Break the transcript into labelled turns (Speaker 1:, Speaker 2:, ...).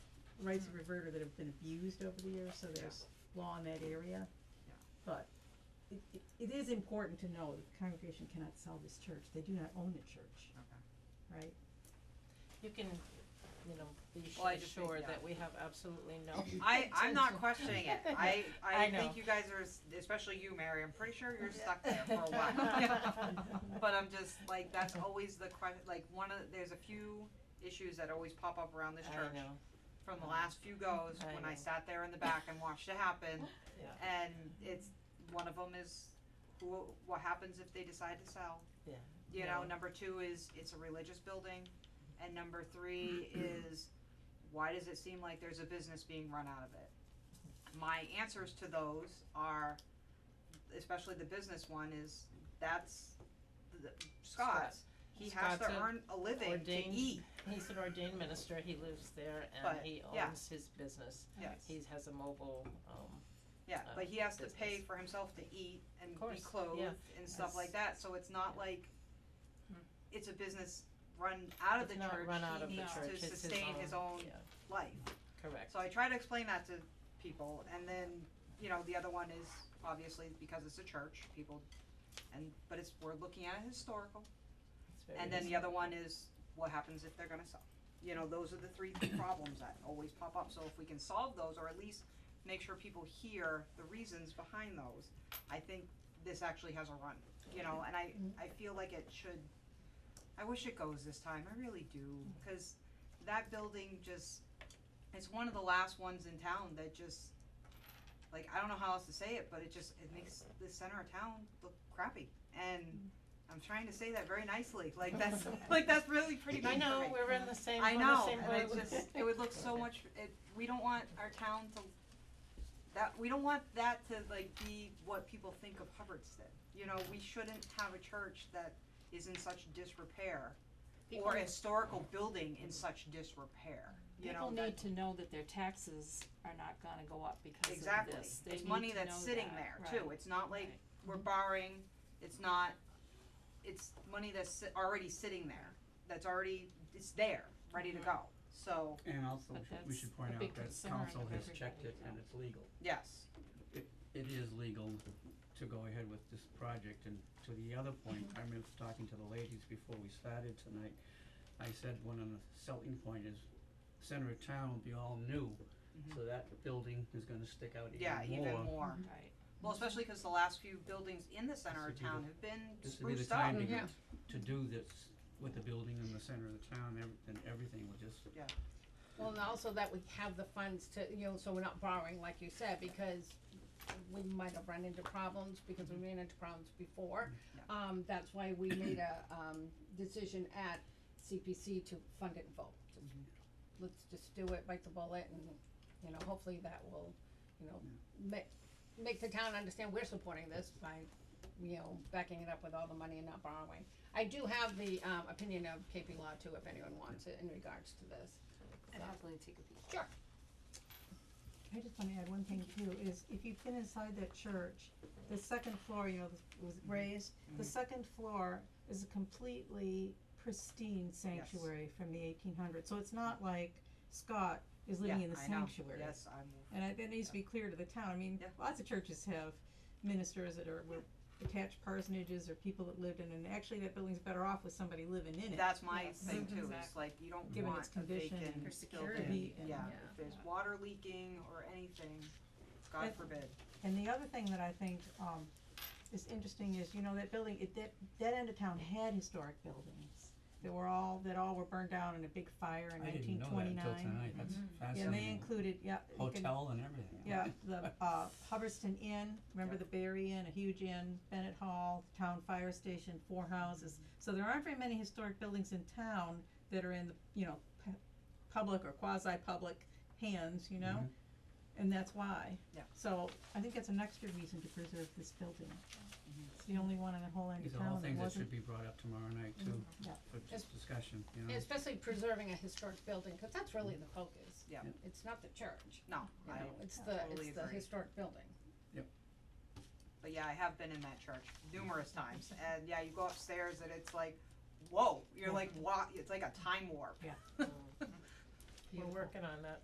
Speaker 1: rights of reverter that have been abused over the years, so
Speaker 2: Yeah.
Speaker 1: there's law in that area.
Speaker 2: Yeah.
Speaker 1: But it, it, it is important to know that the congregation cannot sell this church, they do not own the church,
Speaker 2: Okay.
Speaker 1: right?
Speaker 3: You can, you know, be
Speaker 2: Well, I
Speaker 3: sh-
Speaker 2: just think,
Speaker 3: sure
Speaker 2: yeah.
Speaker 3: that we have absolutely no
Speaker 2: I, I'm not
Speaker 3: intention.
Speaker 2: questioning it. I,
Speaker 3: I
Speaker 2: I
Speaker 3: know.
Speaker 2: think you guys are, s- especially you, Mary, I'm pretty sure you're stuck there for a while. But I'm just, like, that's always the que- like, one of, the- there's a few issues that always pop up around this
Speaker 3: I
Speaker 2: church.
Speaker 3: know,
Speaker 2: From the last few goes,
Speaker 3: I
Speaker 2: when I
Speaker 3: know.
Speaker 2: sat there in the back and watched it happen,
Speaker 3: yeah,
Speaker 2: and it's, one of them is, who, what happens if they decide to sell?
Speaker 3: yeah.
Speaker 2: You know,
Speaker 3: Yeah.
Speaker 2: number two is, it's a religious building, and number three is, why does it seem like there's a business being run out of it? My answers to those are, especially the business one, is, that's the Scott's, he has to
Speaker 3: Scott's a
Speaker 2: earn a living to
Speaker 3: ordained-
Speaker 2: eat,
Speaker 3: He's an ordained minister, he lives there and
Speaker 2: But,
Speaker 3: he
Speaker 2: yeah.
Speaker 3: owns his business.
Speaker 2: yes,
Speaker 3: He has a mobile, um,
Speaker 2: yeah,
Speaker 3: uh,
Speaker 2: but he has to pay
Speaker 3: business.
Speaker 2: for himself to eat and
Speaker 3: course,
Speaker 2: be
Speaker 3: yeah,
Speaker 2: clothed and stuff like that, so it's not
Speaker 3: yeah. Hmm.
Speaker 2: like, it's a business run out of
Speaker 3: It's
Speaker 2: the
Speaker 3: not
Speaker 2: church,
Speaker 3: run out of
Speaker 2: he
Speaker 3: the
Speaker 2: needs
Speaker 3: church,
Speaker 2: to
Speaker 3: it's his
Speaker 2: sustain his
Speaker 3: own,
Speaker 2: own
Speaker 3: yeah,
Speaker 2: life.
Speaker 3: correct.
Speaker 2: So I try to explain that to people, and then, you know, the other one is obviously because it's a church, people, and, but it's, we're looking at it historical.
Speaker 3: It's very
Speaker 2: And then the
Speaker 3: reasonable.
Speaker 2: other one is, what happens if they're gonna sell? You know, those are the three big problems that always pop up, so if we can solve those, or at least make sure people hear the reasons behind those, I think this actually has a run, you know, and I, I feel like it should, I wish it goes this time, I really do, cause that building just, it's one of the last ones in town that just, like, I don't know how else to say it, but it just, it makes the center of town look crappy, and I'm trying to say that very nicely, like, that's, like, that's really pretty
Speaker 3: I
Speaker 2: mean for
Speaker 3: know,
Speaker 2: me.
Speaker 3: we're in the same,
Speaker 2: I
Speaker 3: we're in the
Speaker 2: know,
Speaker 3: same
Speaker 2: and it's
Speaker 3: boat.
Speaker 2: just, it would look so much, it, we don't want our town to, that, we don't want that to like be what people think of Hubbardston. You know, we shouldn't have a church that is in such disrepair,
Speaker 4: People
Speaker 2: or a historical building in such disrepair, you know,
Speaker 4: People
Speaker 2: that-
Speaker 4: need to know that their taxes are not gonna go up because of
Speaker 2: Exactly,
Speaker 4: this. They
Speaker 2: it's
Speaker 4: need
Speaker 2: money
Speaker 4: to
Speaker 2: that's
Speaker 4: know
Speaker 2: sitting there
Speaker 4: that,
Speaker 2: too,
Speaker 4: right.
Speaker 2: it's not like
Speaker 4: Right. Mm-hmm.
Speaker 2: we're borrowing, it's not, it's money that's si- already sitting there, that's already, it's there, ready to
Speaker 4: Mhm.
Speaker 2: go, so,
Speaker 5: And also,
Speaker 4: But
Speaker 5: we should- we
Speaker 4: that's
Speaker 5: should point
Speaker 4: a
Speaker 5: out
Speaker 4: big
Speaker 5: that
Speaker 4: concern
Speaker 5: council
Speaker 4: of
Speaker 5: has checked it
Speaker 4: everybody,
Speaker 5: and
Speaker 4: yeah.
Speaker 5: it's legal.
Speaker 2: yes,
Speaker 5: It is legal to go ahead with this project, and to the other point, I remember talking to the ladies before we started tonight. I said one of the selling point is center of town will be all new, so that building is gonna stick out even
Speaker 2: yeah,
Speaker 5: more.
Speaker 2: even more.
Speaker 4: Right.
Speaker 2: Well, especially cause the last few buildings in the center
Speaker 5: This
Speaker 2: of
Speaker 5: would be
Speaker 2: town
Speaker 5: the-
Speaker 2: have been
Speaker 5: This would be the
Speaker 2: spruced up,
Speaker 5: time to
Speaker 3: Yeah.
Speaker 5: get, to do this with the building in the center of the town, ev- and everything will just
Speaker 6: Well, and also that we have the funds to, you know, so we're not borrowing, like you said, because we might have run into problems, because we ran into problems before.
Speaker 2: Yeah.
Speaker 6: Um, that's why we made a, um, decision at CPC to fund it in full. Just- Let's just do it, bite the bullet, and, you know, hopefully that will, you know, ma- make the town understand we're supporting this by, you know, backing it up with all the money and not borrowing. I do have the, um, opinion of KP Law too, if anyone wants it in regards to this.
Speaker 4: I'd happily take a peek.
Speaker 1: I just wanna add one thing too, is if you've been inside that church, the second floor, you know, was
Speaker 2: Mm-hmm.
Speaker 1: raised, the second floor is a completely pristine sanctuary from the eighteen hundreds, so it's not like Scott is living
Speaker 2: Yeah,
Speaker 1: in the
Speaker 2: I know.
Speaker 1: sanctuary.
Speaker 2: yes, I'm,
Speaker 1: And I, that needs to be clear to the town, I mean,
Speaker 2: Yeah.
Speaker 1: lots of churches have ministers that are, were attached parsonages or people that lived in, it, and actually that building's better off with somebody living in it.
Speaker 2: that's my
Speaker 4: Yes.
Speaker 2: thing too, it's
Speaker 4: Exactly.
Speaker 2: like, you don't
Speaker 1: Given
Speaker 2: want
Speaker 1: its
Speaker 2: a
Speaker 1: condition and
Speaker 2: vacant
Speaker 4: For
Speaker 1: To
Speaker 4: security.
Speaker 2: building,
Speaker 1: be in.
Speaker 2: yeah,
Speaker 4: Yeah.
Speaker 2: if there's water leaking or anything, God
Speaker 1: But-
Speaker 2: forbid,
Speaker 1: And the other thing that I think, um, is interesting is, you know, that building, it, that, that end of town had historic buildings. That were all, that all were burned down in a big fire in
Speaker 5: I
Speaker 1: nineteen
Speaker 5: didn't know that
Speaker 1: twenty-nine.
Speaker 5: until tonight, that's
Speaker 1: Yeah, and they
Speaker 5: fascinating,
Speaker 1: included, yeah. you can-
Speaker 5: hotel and everything.
Speaker 1: Yeah, the, uh, Hubbardston Inn, remember the Berry Inn, a huge inn, Bennett Hall, town fire station, four houses. So there aren't very many historic buildings in town that are in, the you know, pu- public or quasi-public hands, you know?
Speaker 5: Mm-hmm.
Speaker 1: And that's why.
Speaker 2: Yeah.
Speaker 1: So I think that's an extra reason to preserve this building. It's the only one in the whole end
Speaker 5: Mm-hmm. These
Speaker 1: of
Speaker 5: are all
Speaker 1: town that
Speaker 5: things that
Speaker 1: wasn't. Mm-hmm.
Speaker 5: should be brought up tomorrow night too,
Speaker 1: Yeah.
Speaker 5: for
Speaker 6: Yes.
Speaker 5: discussion, you know?
Speaker 2: Mm.
Speaker 6: And Especially preserving a historic building, cause that's really the focus.
Speaker 2: Yeah. Yeah.
Speaker 6: It's not the church,
Speaker 2: no,
Speaker 6: you
Speaker 2: I,
Speaker 6: know, it's the,
Speaker 2: totally
Speaker 6: it's the
Speaker 2: agree.
Speaker 6: historic building.
Speaker 2: but yeah, I have been in that church numerous times, and yeah, you go upstairs and it's like, whoa, you're like, wa- it's like a time warp.
Speaker 1: Yeah.
Speaker 3: We're working on that